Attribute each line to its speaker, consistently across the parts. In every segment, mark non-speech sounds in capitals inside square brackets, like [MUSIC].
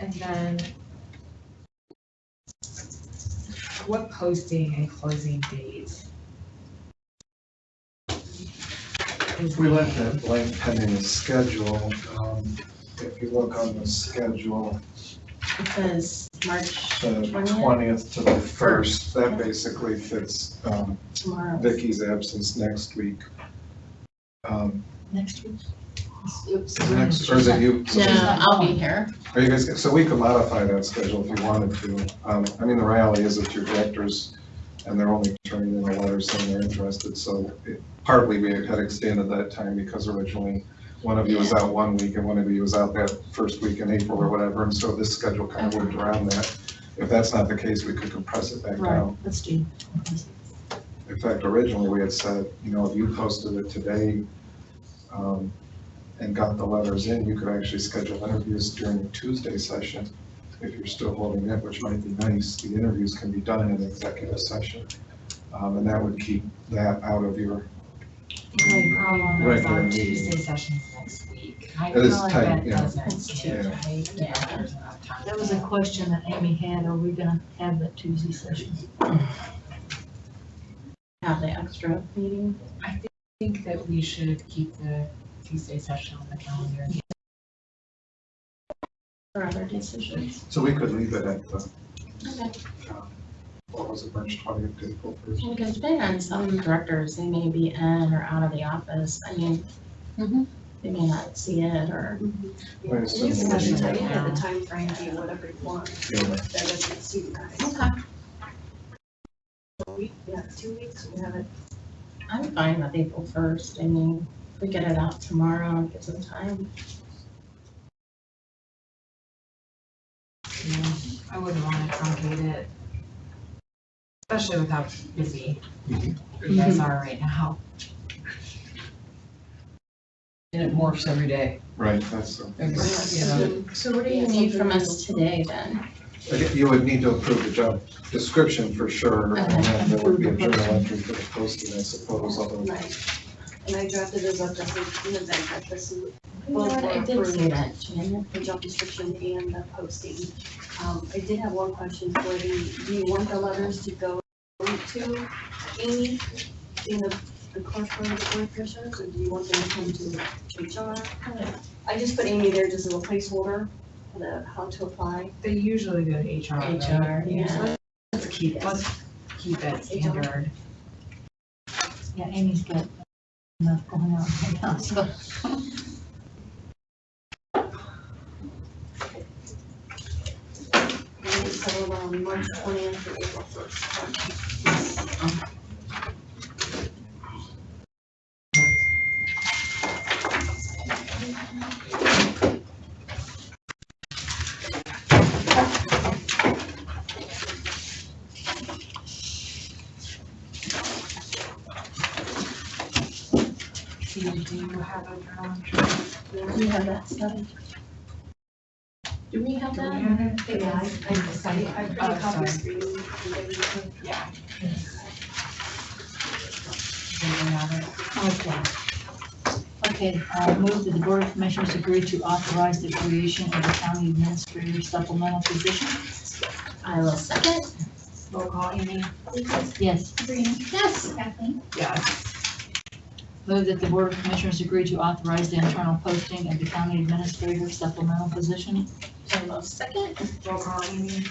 Speaker 1: and then what posting and closing date? Is-
Speaker 2: We left that blank pending the schedule. Um, If you look on the schedule,
Speaker 3: It says March
Speaker 2: the
Speaker 3: twentieth,
Speaker 2: twentieth to the first, that basically fits um,
Speaker 3: tomorrow,
Speaker 2: Vicky's absence next week. Um,
Speaker 3: next week. Oops.
Speaker 2: Next, or is it you?
Speaker 3: No, I'll be here.
Speaker 2: Are you guys, so we could modify that schedule if you wanted to. Um, I mean, the reality is that your directors, and they're only turning in a letter saying they're interested, so it- partly we had extended that time because originally one of you was out one week and one of you was out that first week in April or whatever, and so this schedule kind of worked around that. If that's not the case, we could compress it back
Speaker 3: Right,
Speaker 2: down.
Speaker 3: let's do.
Speaker 2: In fact, originally, we had said, you know, if you posted it today um, and got the letters in, you could actually schedule interviews during the Tuesday session if you're still holding it, which might be nice. The interviews can be done in executive session. Um, And that would keep that out of your,
Speaker 1: The only problem is
Speaker 2: Regular
Speaker 1: um, our
Speaker 2: meeting.
Speaker 1: Tuesday sessions next week. I
Speaker 2: That is
Speaker 1: feel like
Speaker 2: tight,
Speaker 1: that
Speaker 2: yeah.
Speaker 1: doesn't
Speaker 3: That's
Speaker 1: fit,
Speaker 2: tight.
Speaker 1: right?
Speaker 3: Yeah.
Speaker 1: Yeah, there's enough time.
Speaker 4: That was a question that Amy had, are we gonna have that Tuesday session?
Speaker 3: Have the extra meeting.
Speaker 1: I thi- think that we should keep the Tuesday session on the calendar.
Speaker 3: for other decisions.
Speaker 2: so we could leave it at the,
Speaker 3: Okay.
Speaker 2: um, what was it, March 20th, to April 1st?
Speaker 3: Because depending on some directors, they may be in or out of the office. I mean, Mm-hmm.
Speaker 4: Mhm.
Speaker 3: they may not see it or,
Speaker 2: Wait, it's
Speaker 5: You
Speaker 2: still-
Speaker 5: can actually tell you the timeframe, do whatever you want,
Speaker 2: Yeah.
Speaker 5: that doesn't suit guys.
Speaker 3: okay,
Speaker 5: A week, yeah, two weeks, we have it.
Speaker 3: I'm fine with April first. I mean, if we get it out tomorrow, give some time.
Speaker 1: Yeah, I wouldn't want to truncate it, especially with how busy you guys are right now.
Speaker 6: And it morphs every day.
Speaker 2: Right, that's, uh,
Speaker 6: Yeah.
Speaker 3: So what do you need from us today then?
Speaker 2: I think You would need to approve the job description for sure, and then there would be a journal entry for the posting, I suppose, although
Speaker 5: Right. And I drafted those up just in the event that this is
Speaker 3: You know what, I did see that, Janet.
Speaker 5: the job description and the posting. Um, I did have one question for the, do you want the letters to go to Amy in the, the corporate board commissioners, or do you want them to come to HR? I just put Amy there just as a placeholder, for the, how to apply.
Speaker 1: They usually go to HR, right?
Speaker 3: HR, yeah.
Speaker 1: So Let's keep, let's keep that standard.
Speaker 4: Yeah, Amy's got enough going on right now, so.
Speaker 5: And we settled on March twentieth or April first.
Speaker 1: Do you do you have a journal entry?
Speaker 3: Do you have that stuff? Do we have
Speaker 1: Do we
Speaker 3: that?
Speaker 1: have it?
Speaker 5: Yeah, I, I decided, I printed
Speaker 1: Oh,
Speaker 5: copies
Speaker 1: sorry.
Speaker 5: for you. and everything.
Speaker 1: Yeah. Do we have it?
Speaker 4: Okay. Okay, I move that the Board of Commissioners agree to authorize the creation of the county administrator supplemental position.
Speaker 3: I will second.
Speaker 1: Roll call, Amy?
Speaker 4: Yes.
Speaker 3: Yes.
Speaker 1: Yes.
Speaker 4: Move that the Board of Commissioners agree to authorize the internal posting of the county administrator supplemental position.
Speaker 3: I will second.
Speaker 1: Roll call, Amy?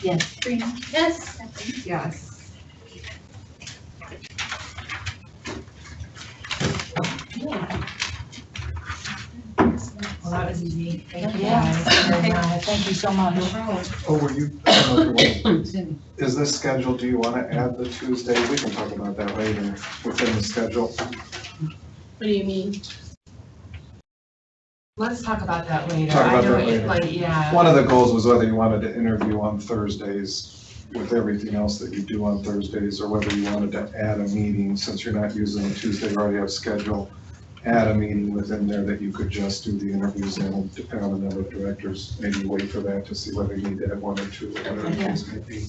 Speaker 4: Yes.
Speaker 3: Yes.
Speaker 1: Yes. Well, that was easy. Thank you
Speaker 4: Yeah.
Speaker 1: guys very much.
Speaker 5: [LAUGHS]
Speaker 4: Thank you so much.
Speaker 2: Oh, were you, [COUGHS] I don't know if you want- is this scheduled, do you want to add the Tuesday? We can talk about that later within the schedule.
Speaker 3: What do you mean?
Speaker 1: Let's talk about that later.
Speaker 2: Talk about
Speaker 1: I know
Speaker 2: that
Speaker 1: it-
Speaker 2: later.
Speaker 1: Like, yeah,
Speaker 2: One of the goals was whether you wanted to interview on Thursdays with everything else that you do on Thursdays, or whether you wanted to add a meeting, since you're not using the Tuesday, you already have schedule. Add a meeting within there that you could just do the interviews and depend on the number of directors, maybe wait for that to see whether you need to add one or two, or whatever the case may be.